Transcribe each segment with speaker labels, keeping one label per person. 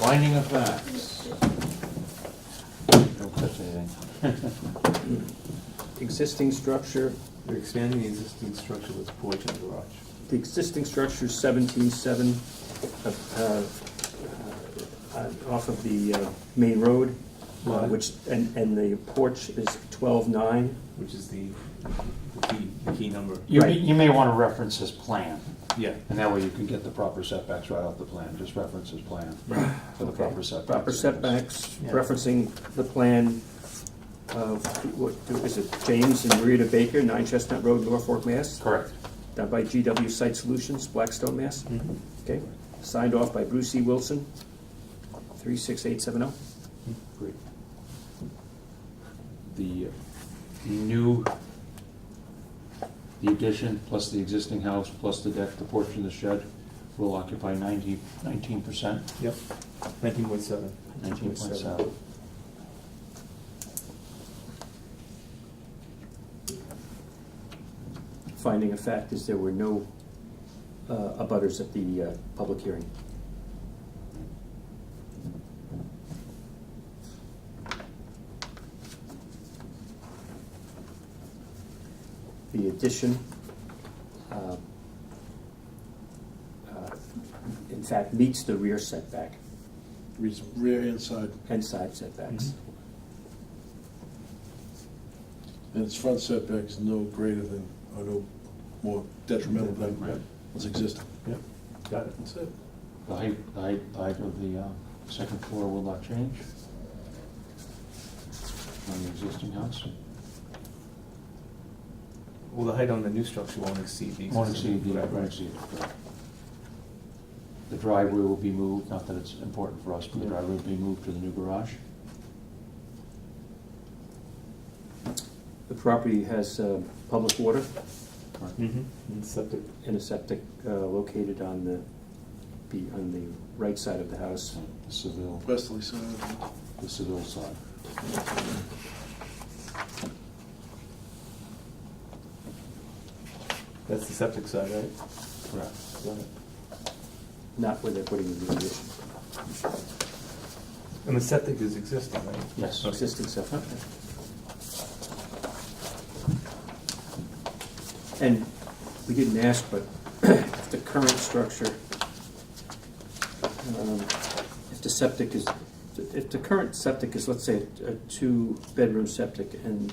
Speaker 1: Finding of facts. Don't touch anything.
Speaker 2: Existing structure,
Speaker 3: They're expanding the existing structure with porch and garage.
Speaker 2: the existing structure is seventeen seven off of the uh, main road, uh,
Speaker 3: Right.
Speaker 2: which, and, and the porch is twelve nine.
Speaker 3: Which is the, the key, the key number.
Speaker 1: You, may-
Speaker 2: Right.
Speaker 1: you may wanna reference his plan,
Speaker 3: Yeah.
Speaker 1: and that way you can get the proper setbacks right off the plan, just reference his plan for the proper setbacks.
Speaker 2: Proper setbacks,
Speaker 3: Yeah.
Speaker 2: referencing the plan of, what, is it James and Rita Baker, Nine Chestnut Road, Norfolk, Mass?
Speaker 1: Correct.
Speaker 2: Done by GW Site Solutions, Blackstone, Mass.
Speaker 1: Mm-hmm.
Speaker 2: Okay, signed off by Bruce E. Wilson, three six eight seven oh.
Speaker 1: Great. The new, the addition, plus the existing house, plus the deck, the porch and the shed will occupy ninety, nineteen percent,
Speaker 3: Yep. Nineteen point seven.
Speaker 1: nineteen point seven.
Speaker 2: Finding of fact is there were no uh, abutters at the uh, public hearing. The addition, uh, uh, in fact, meets the rear setback
Speaker 4: Rear- Rear and side,
Speaker 2: and side setbacks.
Speaker 4: and its front setback is no greater than, or no more detrimental
Speaker 1: Right.
Speaker 4: than what's existing.
Speaker 3: Yep. Got it.
Speaker 4: That's it.
Speaker 1: The height, the height, the height of the uh, second floor will not change on the existing house.
Speaker 3: Well, the height on the new structure won't exceed the existing.
Speaker 1: Won't exceed, the- won't exceed. The driveway will be moved, not that it's important for us, but the driveway will be moved to the new garage.
Speaker 2: The property has uh, public water
Speaker 3: Mm-hmm. And septic.
Speaker 2: and a septic uh, located on the, be- on the right side of the house.
Speaker 1: The civil,
Speaker 4: Westerly side.
Speaker 1: the civil side.
Speaker 3: That's the septic side, right?
Speaker 1: Correct.
Speaker 3: Got it.
Speaker 2: Not where they're putting the new addition,
Speaker 3: And the septic is existing, right?
Speaker 1: Yes.
Speaker 2: existing septic. And we didn't ask, but if the current structure, um, if the septic is, if the current septic is, let's say, a two-bedroom septic and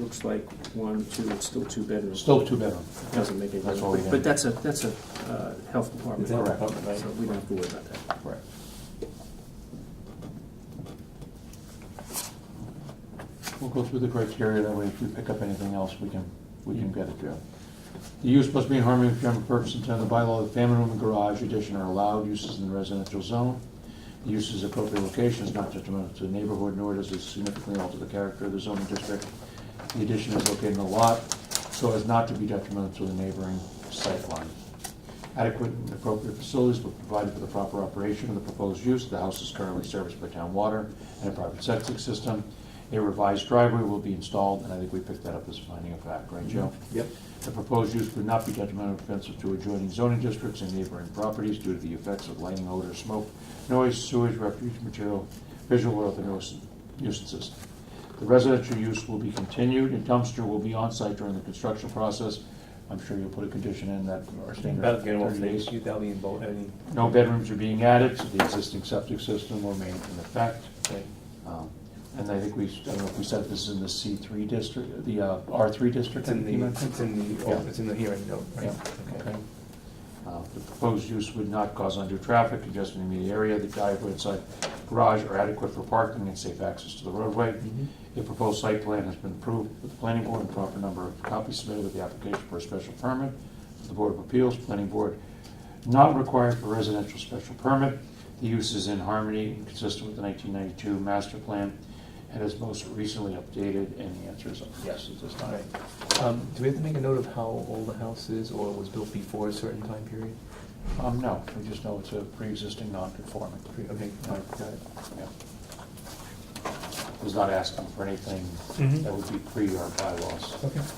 Speaker 2: looks like one, two, it's still two bedrooms.
Speaker 1: Still two bedroom.
Speaker 2: Doesn't make any
Speaker 1: That's
Speaker 2: difference.
Speaker 1: all we
Speaker 2: But-
Speaker 1: need.
Speaker 2: But that's a, that's a uh, health department.
Speaker 3: It's in the apartment,
Speaker 2: So
Speaker 3: right?
Speaker 2: we don't have to worry about that.
Speaker 1: Correct. We'll go through the criteria, that way if we pick up anything else, we can, we can get it, Joe. The use must be in harmony with general purpose and intent of the bylaw, the family room and garage addition are allowed uses in the residential zone. The use is appropriate location is not detrimental to the neighborhood, nor does it significantly alter the character of the zoning district. The addition is located in the lot, so as not to be detrimental to the neighboring sight line. Adequate and appropriate facilities were provided for the proper operation of the proposed use. The house is currently serviced by town water and a private septic system. A revised driveway will be installed, and I think we picked that up as a finding of fact, right, Joe?
Speaker 3: Yep.
Speaker 1: The proposed use would not be detrimental or offensive to adjoining zoning districts and neighboring properties due to the effects of lighting, odor, smoke, noise, sewage, refuse material, visual or other nuisance- nuisances. The residential use will be continued, and dumpster will be on-site during the construction process. I'm sure you'll put a condition in that our standard
Speaker 3: That'll get off
Speaker 1: 30
Speaker 3: the
Speaker 1: days.
Speaker 3: issue, that'll be in both, I mean,
Speaker 1: No bedrooms are being added, so the existing septic system will remain in effect.
Speaker 3: right.
Speaker 1: Um, And I think we, I don't know if we said this is in the C3 district, the uh, R3 district?
Speaker 3: It's in
Speaker 1: you
Speaker 3: the,
Speaker 1: meant?
Speaker 3: it's in the,
Speaker 1: Yeah.
Speaker 3: oh, it's in the hearing note, right?
Speaker 1: Yeah, okay. Uh, The proposed use would not cause undue traffic, congestion in the immediate area, the driveway and side garage are adequate for parking and safe access to the roadway. The proposed site plan has been approved with the planning board and proper number of copies submitted with the application for a special permit to the Board of Appeals, planning board not required for residential special permit. The use is in harmony and consistent with the 1992 master plan and is most recently updated, and the answer is yes at this time.
Speaker 3: Right. Um, do we have to make a note of how old the house is, or was built before a certain time period?
Speaker 1: Um, no, we just know it's a pre-existing non-conforming.
Speaker 3: Pre- Okay, all right, got it.
Speaker 1: Yeah. Was not asking for anything
Speaker 3: Mhm.
Speaker 1: that would be pre our bylaws.
Speaker 3: Okay.